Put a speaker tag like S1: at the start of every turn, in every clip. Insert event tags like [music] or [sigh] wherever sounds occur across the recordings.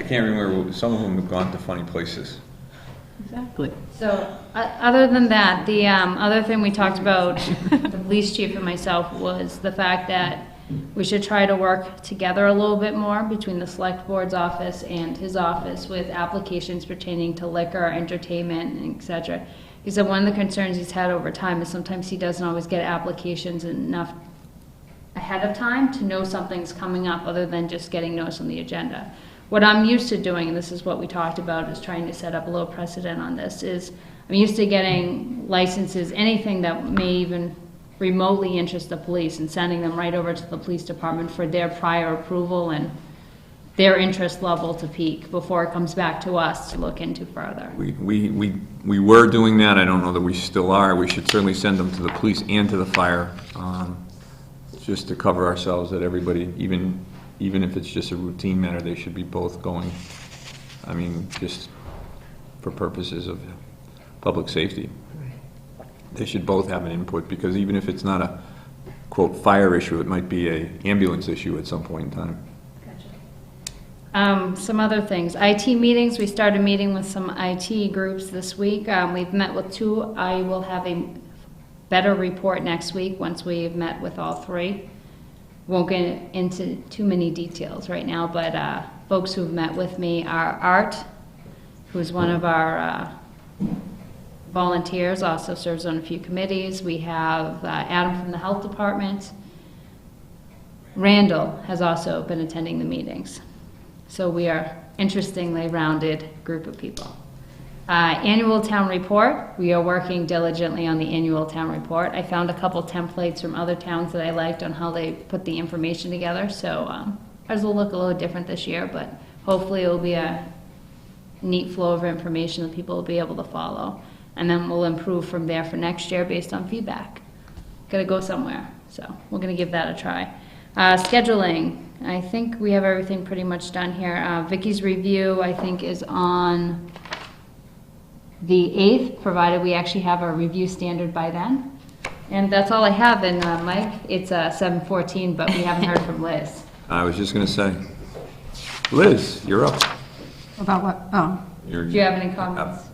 S1: can't remember, some of them have gone to funny places.
S2: Exactly.
S3: So, o- other than that, the um, other thing we talked about, [laughs] the police chief and myself, was the fact that we should try to work together a little bit more between the select board's office and his office with applications pertaining to liquor, entertainment, and et cetera. He said one of the concerns he's had over time is sometimes he doesn't always get applications enough ahead of time to know something's coming up other than just getting noticed on the agenda. What I'm used to doing, and this is what we talked about, is trying to set up a little precedent on this, is I'm used to getting licenses, anything that may even remotely interest the police and sending them right over to the police department for their prior approval and their interest level to peak before it comes back to us to look into further.
S1: We, we, we we were doing that, I don't know that we still are, we should certainly send them to the police and to the fire, um, just to cover ourselves that everybody, even, even if it's just a routine matter, they should be both going. I mean, just for purposes of public safety. They should both have an input, because even if it's not a quote fire issue, it might be a ambulance issue at some point in time.
S3: Um, some other things. IT meetings, we started meeting with some IT groups this week. Um, we've met with two. I will have a better report next week once we've met with all three. Won't get into too many details right now, but, uh, folks who've met with me are Art, who's one of our, uh, volunteers, also serves on a few committees. We have uh, Adam from the Health Department. Randall has also been attending the meetings. So we are interestingly rounded group of people. Uh, Annual town report, we are working diligently on the annual town report. I found a couple templates from other towns that I liked on how they put the information together, so um, ours will look a little different this year, but hopefully it'll be a neat flow of information that people will be able to follow. And then we'll improve from there for next year based on feedback. Gotta go somewhere, so we're gonna give that a try. Uh, scheduling, I think we have everything pretty much done here. Uh, Vicky's review, I think, is on the 8th, provided we actually have our review standard by then. And that's all I have, and uh, Mike, it's uh, 7:14, but we haven't heard from Liz.
S1: I was just gonna say, Liz, you're up.
S2: About what, oh,
S1: You're-
S3: Do you have any comments?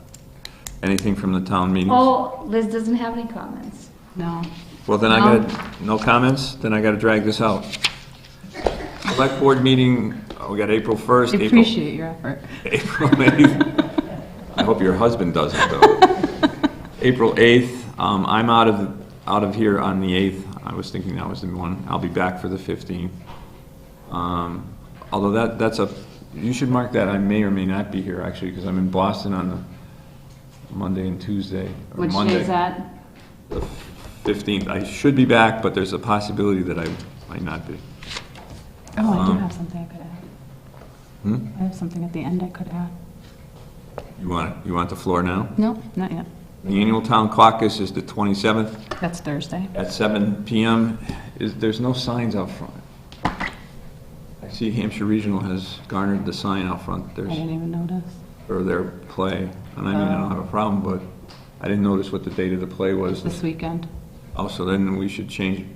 S1: Anything from the town meetings?
S3: Oh, Liz doesn't have any comments.
S2: no.
S1: Well, then I
S3: No.
S1: got, no comments, then I gotta drag this out. Select board meeting, oh, we got April 1st,
S2: I
S1: April,
S2: appreciate your effort.
S1: April 8th. I hope your husband does it, though. April 8th, um, I'm out of, out of here on the 8th. I was thinking that was the one. I'll be back for the 15th. Um, although that, that's a, you should mark that. I may or may not be here, actually, because I'm in Boston on the Monday and Tuesday, or
S3: Which
S1: Monday.
S3: is uh, that?
S1: the 15th. I should be back, but there's a possibility that I might not be.
S2: Oh, I do
S1: Um,
S2: have something I could add.
S1: Hmm?
S2: I have something at the end I could add.
S1: You want, you want the floor now?
S2: No, not yet.
S1: The annual town caucus is the 27th
S2: That's Thursday.
S1: at 7 PM. Is, there's no signs out front. I see Hampshire Regional has garnered the sign out front,
S2: I
S1: there's,
S2: didn't even notice.
S1: for their play. And I mean,
S4: Oh.
S1: I don't have a problem, but I didn't notice what the date of the play was.
S2: This weekend.
S1: Also, then we should change,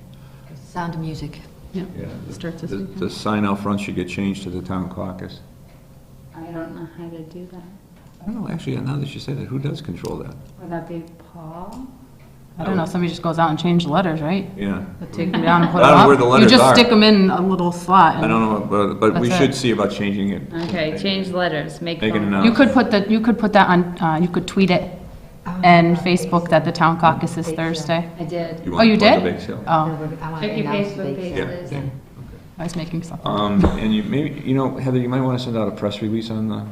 S4: Sound of Music.
S2: Yep.
S1: yeah.
S2: Starts this
S1: the-
S2: weekend.
S1: The sign out front should get changed to the town caucus.
S3: I don't know how to do that.
S1: I don't know, actually, now that you say that, who does control that?
S3: Would that be Paul?
S2: I don't know, somebody just goes out and changes the letters, right?
S1: Yeah,
S2: They Take them down and put
S1: I
S2: them
S1: don't
S2: up.
S1: know where the letters
S2: You just
S1: are.
S2: stick them in a little slot.
S1: I don't know, but, but we
S2: That's
S1: should
S2: it.
S1: see about changing it.
S3: Okay, change letters, make.
S1: Make it
S3: phone-
S1: an
S2: You could put that, you could put that on, uh, you could tweet it and Facebook that the town caucus is Thursday.
S3: I did.
S2: Oh,
S1: want
S2: you
S1: to plug
S2: did?
S1: the bake sale?
S2: Oh,
S4: I want to
S3: Check your
S4: announce the
S3: Facebook
S4: big
S3: page,
S4: sale.
S1: Yeah,
S3: Liz.
S1: yeah.
S2: I was making something.
S1: Um, and you, maybe, you know, Heather, you might want to send out a press release on the,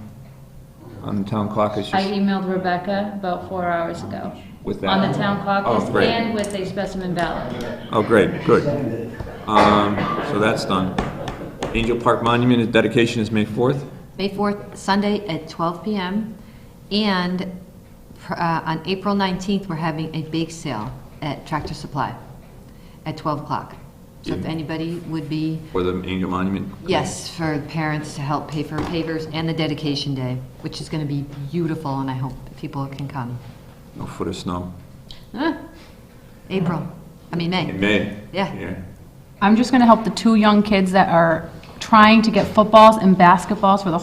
S1: on the town caucus,
S3: I
S1: just
S3: emailed Rebecca about four hours ago
S1: with that.
S3: on the town caucus
S1: Oh, great.
S3: and with a specimen ballot.
S1: Oh, great, good. Um, so that's done. Angel Park Monument dedication is May 4th?
S4: May 4th, Sunday at 12 PM. And pr- uh, on April 19th, we're having a bake sale at Tractor Supply at 12 o'clock. So if
S1: Yeah.
S4: anybody would be,
S1: For the Angel Monument?
S4: yes, for parents to help pay for pavers and the dedication day, which is going to be beautiful, and I hope people can come.
S1: No foot of snow.
S4: Ah, April, I mean,
S1: In
S4: May.
S1: May?
S4: Yeah.
S2: I'm just gonna help the two young kids that are trying to get footballs and basketballs for the